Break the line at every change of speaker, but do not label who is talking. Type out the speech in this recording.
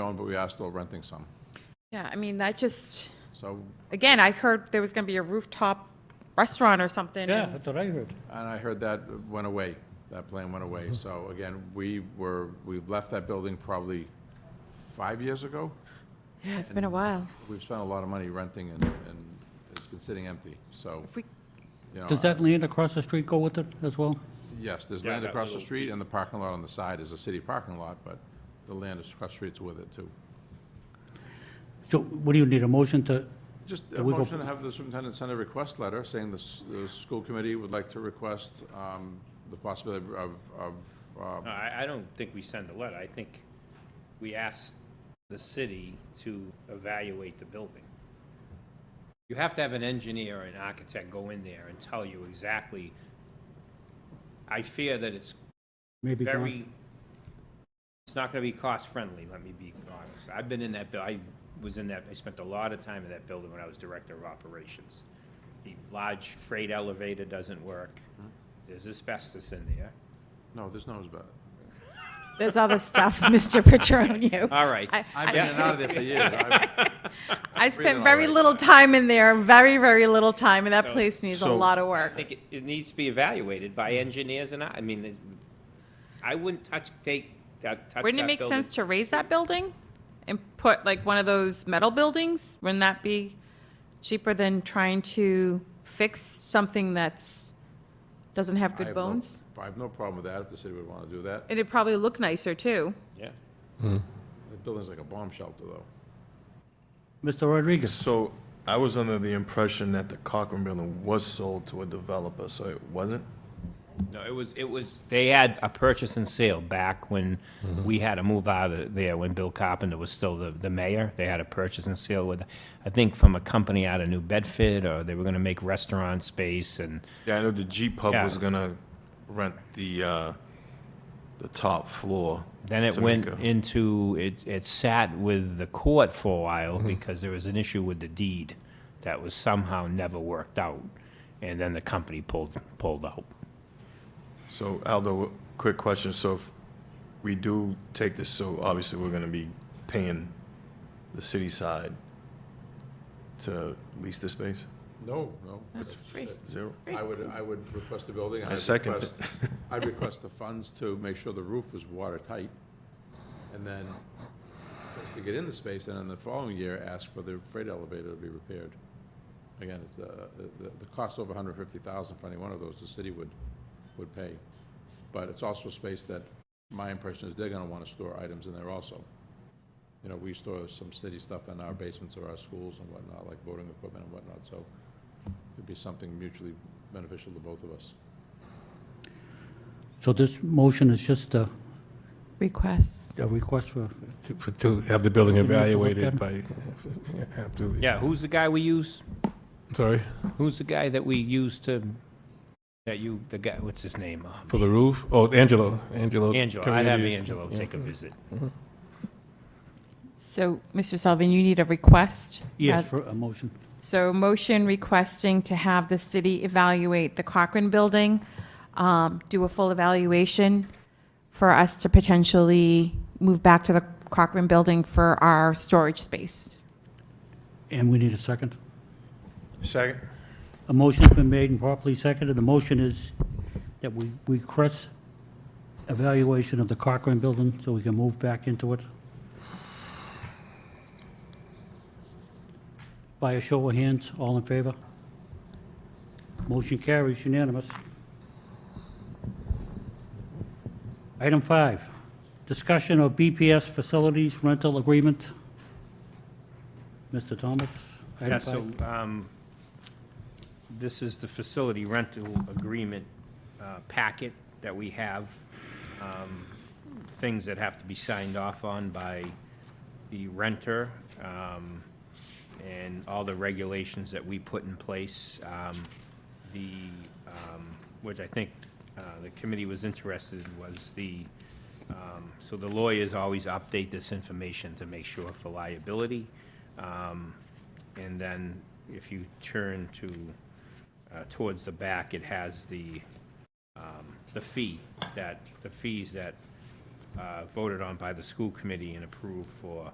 own, but we are still renting some.
Yeah, I mean, that just,
So,
again, I heard there was going to be a rooftop restaurant or something.
Yeah,
and-
that's what I heard.
and I heard that went away, that plan went
Mm-hmm.
away. So again, we were, we left that building probably five years ago.
Yeah, it's been a while.
We've spent a lot of money renting and, and it's been sitting empty, so,
If we,
you know.
Does that land across the street go with it as well?
Yes, there's
Yeah,
land
that
across the
little-
street and the parking lot on the side is a city parking lot, but the land is across the streets with it too.
So what do you need, a motion to,
Just a
And we go-
motion to have the superintendent send a request letter saying the, s- the school committee would like to request, um, the possibility of, of, uh,
No, I, I don't think we send a letter. I think we ask the city to evaluate the building. You have to have an engineer or an architect go in there and tell you exactly. I fear that it's
maybe? go on?
very, it's not gonna be cost-friendly, let me be honest. I've been in that, bu- I was in that, I spent a lot of time in that building when I was director of operations. The large freight elevator doesn't work. There's asbestos in there.
no, there's no, but,
there's other stuff, Mr. Petronio.
All right.
I,
I've been in and out of there for years. I've-
I
all
spent very
right.
little time in there, very, very little time, and that
So-
place needs a
so-
lot of
I
work.
think it, it needs to be evaluated by engineers and I, I mean, it's- I wouldn't touch, take, that- touch that
Wouldn't it make
building.
sense to raise that building and put like one of those metal buildings? Wouldn't that be cheaper than trying to fix something that's, doesn't have
I
good
have no-
bones?
I have no problem with that, if the city would wanna do that.
It'd probably look nicer too.
Yeah.
The building's like a bomb shelter, though.
Mr. Rodriguez,
So I was under the impression that the Cochran building was sold to a developer, so it wasn't?
No, it was, it was, they had a purchase and sale back when we had to move out of there, when Bill Carpenter was still the, the mayor. They had a purchase and sale with, I think from a company out of New Bedford, or they were gonna make restaurant space and,
Yeah, I know the G Pub
Yeah.
was gonna rent the, uh, the top floor.
Then it
to
went
make a-
into, it, it sat with the court for a while because there was an issue with the deed that was somehow never worked out. And then the company pulled, pulled out.
So Aldo, quick question, so if we do take this, so obviously we're gonna be paying the city side to lease this space?
No, no. It's
free.
Zero?
I would, I would request the building. and
I
I'd
second
request- I'd request the funds to make sure the roof was watertight, and then, to get in the space, and then the following year, ask for the freight elevator to be repaired. Again, it's, uh, the, the cost over hundred fifty thousand for any one of those, the city would, would pay. But it's also a space that, my impression is they're gonna wanna store items in there also. You know, we store some city stuff in our basements of our schools and whatnot, like voting equipment and whatnot, so it'd be something mutually beneficial to both of us.
so this motion is just a,
Request.
a request for,
to- for- to have the building
Give me a look at
evaluated
it.
by, absolutely.
Yeah, who's the guy we use?
Sorry,
Who's the guy that we use to, that you, the guy, what's his name? Oh,
for the roof? Oh, Angelo, Angelo.
Angelo, I'd have
Carides.
Angelo
Yeah.
take a visit.
So, Mr. Sullivan, you need a request?
yes,
Uh,
for a motion.
So motion requesting to have the city evaluate the Cochrane Building, um, do a full evaluation for us to potentially move back to the Cochrane Building for our storage space.
And we need a second.
Second.
A motion's been made and properly seconded. The motion is that we we request evaluation of the Cochran building so we can move back into it. By a show of hands, all in favor? Motion carries unanimous. Item five, discussion of BPS facilities rental agreement. Mr. Thomas? item
Yeah,
five.
so, um, this is the facility rental agreement, uh, packet that we have. Um, Things that have to be signed off on by the renter, um, and all the regulations that we put in place. Um, the, um, which I think, uh, the committee was interested in was the, um, so the lawyers always update this information to make sure for liability. Um, and then if you turn to, uh, towards the back, it has the, um, the fee that, the fees that uh, voted on by the school committee and approved for